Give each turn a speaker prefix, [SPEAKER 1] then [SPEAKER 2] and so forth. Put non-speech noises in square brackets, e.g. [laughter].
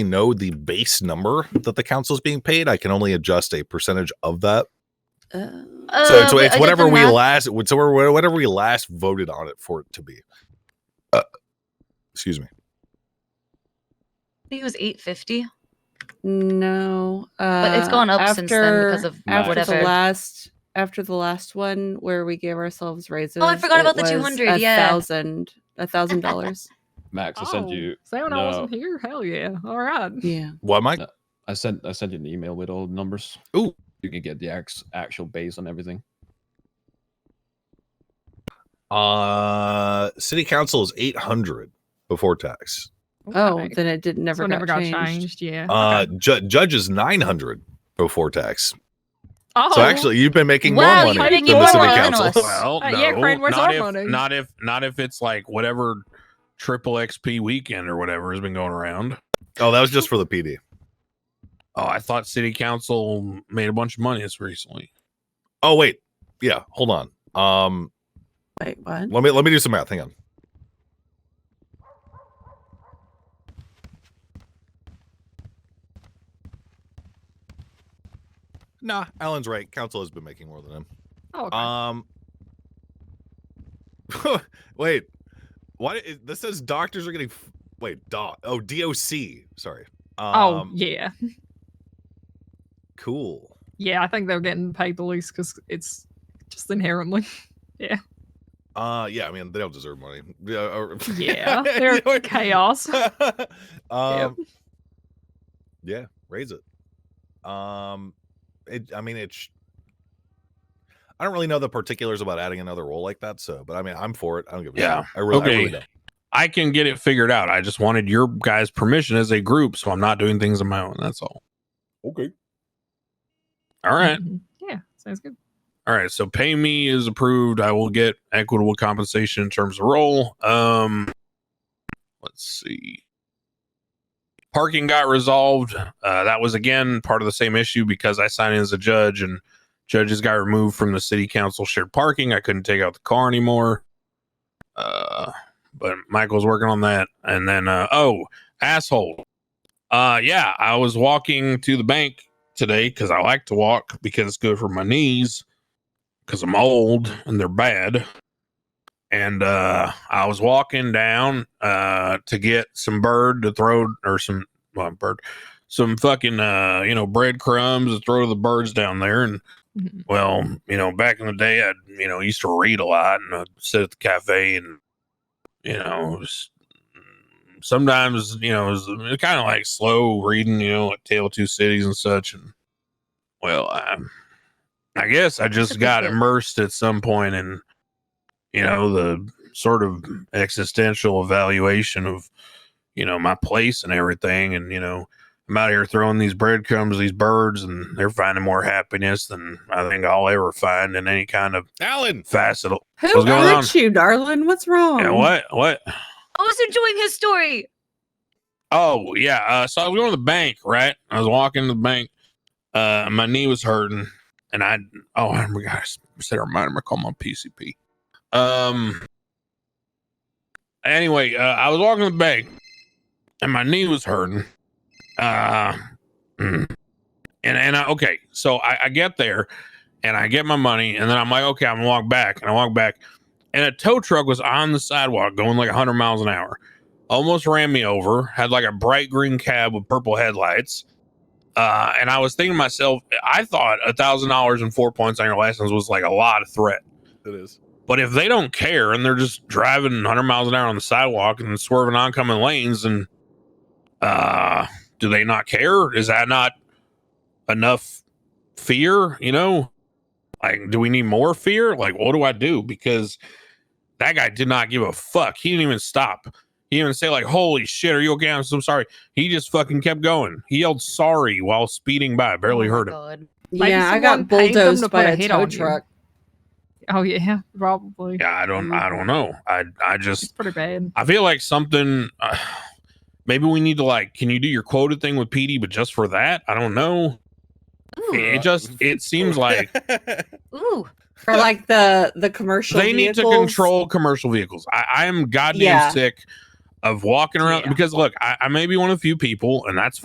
[SPEAKER 1] know the base number that the council is being paid. I can only adjust a percentage of that.
[SPEAKER 2] Uh,
[SPEAKER 1] so it's,
[SPEAKER 3] but
[SPEAKER 1] it's
[SPEAKER 3] I did
[SPEAKER 1] whatever
[SPEAKER 3] the
[SPEAKER 1] we
[SPEAKER 3] math.
[SPEAKER 1] last, so we're- whatever we last voted on it for it to be. Uh, excuse me.
[SPEAKER 2] think it was 850,
[SPEAKER 4] No, uh,
[SPEAKER 2] but it's gone up since then because of
[SPEAKER 4] after
[SPEAKER 2] whatever.
[SPEAKER 4] the last after the last one where we gave ourselves raises.
[SPEAKER 2] Oh, forgot about
[SPEAKER 4] it
[SPEAKER 2] the
[SPEAKER 4] was
[SPEAKER 2] 200, yeah.
[SPEAKER 4] a thousand, a thousand
[SPEAKER 2] [laughs]
[SPEAKER 4] dollars.
[SPEAKER 5] Max, I
[SPEAKER 6] Oh.
[SPEAKER 5] sent you.
[SPEAKER 6] Sam, I wasn't
[SPEAKER 5] no.
[SPEAKER 6] here. Hell yeah! All right.
[SPEAKER 4] Yeah,
[SPEAKER 1] What, Mike?
[SPEAKER 5] I sent. I sent you an email with all the numbers.
[SPEAKER 1] Ooh.
[SPEAKER 5] you can get the ax- actual base on everything.
[SPEAKER 1] Uh, city council is 800 before tax.
[SPEAKER 4] Oh,
[SPEAKER 6] Okay.
[SPEAKER 4] then it did never
[SPEAKER 6] so it
[SPEAKER 4] got
[SPEAKER 6] never got changed.
[SPEAKER 4] changed.
[SPEAKER 6] Yeah.
[SPEAKER 2] Oh,
[SPEAKER 1] Uh, ju- judge is 900 before tax.
[SPEAKER 6] oh,
[SPEAKER 1] So actually, you've been making
[SPEAKER 2] Wow,
[SPEAKER 1] more
[SPEAKER 2] you're
[SPEAKER 1] money
[SPEAKER 2] making
[SPEAKER 1] than the
[SPEAKER 2] more
[SPEAKER 1] city
[SPEAKER 2] money than
[SPEAKER 1] council.
[SPEAKER 2] us.
[SPEAKER 7] Well,
[SPEAKER 6] Uh,
[SPEAKER 7] no,
[SPEAKER 6] yeah, Crane, where's
[SPEAKER 7] not
[SPEAKER 6] our
[SPEAKER 7] if
[SPEAKER 6] money?
[SPEAKER 7] not if not if it's like whatever triple XP weekend or whatever has been going around.
[SPEAKER 1] Oh, that was just for the PD.
[SPEAKER 7] Oh, I thought city council made a bunch of money this recently.
[SPEAKER 1] Oh wait, yeah. Hold on. Um,
[SPEAKER 4] Wait, what?
[SPEAKER 1] let me let me do some math. Hang on. Nah, Alan's right. Council has been making more than him.
[SPEAKER 6] oh, okay.
[SPEAKER 1] Um. [laughs] wait, why? Is, this says doctors are getting. f- Wait, doc. Oh, DOC. Sorry. Um,
[SPEAKER 6] oh yeah,
[SPEAKER 1] Cool.
[SPEAKER 6] yeah. I think they're getting paid the least because it's just inherently. [laughs]
[SPEAKER 1] Uh, yeah. I mean, they don't deserve money. [laughs] Yeah. or- [laughs]
[SPEAKER 6] Yeah,
[SPEAKER 1] You know
[SPEAKER 6] they're
[SPEAKER 1] what-
[SPEAKER 6] chaos.
[SPEAKER 7] [laughs]
[SPEAKER 1] um, yeah, raise it. Um, it. I mean, it's. Sh- I don't really know the particulars about adding another role like that. So, but I mean, I'm for it. I don't give a
[SPEAKER 7] Yeah.
[SPEAKER 1] shit. I really, I really
[SPEAKER 7] Okay.
[SPEAKER 1] don't.
[SPEAKER 7] I can get it figured out. I just wanted your guys' permission as a group, so I'm not doing things on my own. That's all.
[SPEAKER 1] Okay.
[SPEAKER 7] All right.
[SPEAKER 6] Mhm. Yeah, sounds good.
[SPEAKER 7] All right, so pay me is approved. I will get equitable compensation in terms of role. Um let's see. Parking got resolved. Uh, that was again part of the same issue because I signed in as a judge and judges got removed from the city council shared parking. I couldn't take out the car anymore. Uh, but Michael's working on that. And then uh, oh, asshole. Uh yeah, I was walking to the bank today because I like to walk because it's good for my knees because I'm old and they're bad. And uh, I was walking down uh, to get some bird to throw or some well, bird, some fucking uh, you know breadcrumbs to throw to the birds down there. And
[SPEAKER 6] Mhm.
[SPEAKER 7] well, you know, back in the day, I you know used to read a lot and I'd sit at the cafe and you know s- sometimes you know it's kind of like slow reading, you know, like Tale of Two Cities and such. And well, I, I guess I just got immersed at some point in you know the sort of existential evaluation of you know my place and everything, and you know. I'm out here throwing these breadcrumbs, to these birds, and they're finding more happiness than I think I'll ever find in any kind of
[SPEAKER 1] Alan.
[SPEAKER 7] facet. of-
[SPEAKER 4] Who
[SPEAKER 7] What's going
[SPEAKER 4] hurt you, darling? What's wrong?
[SPEAKER 7] Yeah, what? What?
[SPEAKER 2] I was enjoying his story.
[SPEAKER 7] Oh yeah. Uh, so I was going to the bank, right? I was walking to the bank. Uh, my knee was hurting, and I oh I gosh, said a reminder. I call my PCP. Um. Anyway, uh, I was walking to the bank, and my knee was hurting. Uh, mm. and and I, okay, so I, I get there, and I get my money, and then I'm like, okay, I'm gonna walk back, and I walk back, and a tow truck was on the sidewalk going like 100 miles an hour almost ran me over, had like a bright green cab with purple headlights. Uh, and I was thinking to myself, I thought a thousand dollars and four points on your license was like a lot of threat.
[SPEAKER 1] It is.
[SPEAKER 7] But if they don't care and they're just driving 100 miles an hour on the sidewalk and swerving oncoming lanes, and uh, do they not care? Is that not enough fear? You know, like, do we need more fear? Like, what do I do? Because that guy did not give a fuck. He didn't even stop. He didn't even say like, "Holy shit, are you okay?" I'm so sorry. He just fucking kept going. He yelled "sorry" while speeding by. I barely
[SPEAKER 2] Oh
[SPEAKER 6] Oh
[SPEAKER 7] heard him.
[SPEAKER 2] him.
[SPEAKER 6] Maybe
[SPEAKER 4] Yeah, I
[SPEAKER 6] someone
[SPEAKER 4] got
[SPEAKER 6] paid them to
[SPEAKER 4] bulldozed by
[SPEAKER 6] put a
[SPEAKER 4] a
[SPEAKER 6] hit
[SPEAKER 4] tow
[SPEAKER 6] on you.
[SPEAKER 4] truck.
[SPEAKER 6] Oh yeah, probably.
[SPEAKER 7] Yeah, I don't, I don't know. I, I just,
[SPEAKER 6] It's pretty bad.
[SPEAKER 7] I feel like something. Uh, maybe we need to like. Can you do your quota thing with PD, but just for that? I don't know. It,
[SPEAKER 4] uh,
[SPEAKER 7] it just.
[SPEAKER 4] [laughs]
[SPEAKER 7] It seems like [laughs]
[SPEAKER 2] Ooh,
[SPEAKER 4] For like the the commercial.
[SPEAKER 7] they need to
[SPEAKER 4] vehicles.
[SPEAKER 7] control commercial vehicles. I, I am goddamn
[SPEAKER 4] Yeah.
[SPEAKER 7] sick of walking around
[SPEAKER 6] Yeah.
[SPEAKER 7] because look, I, I may be one of the few people, and that's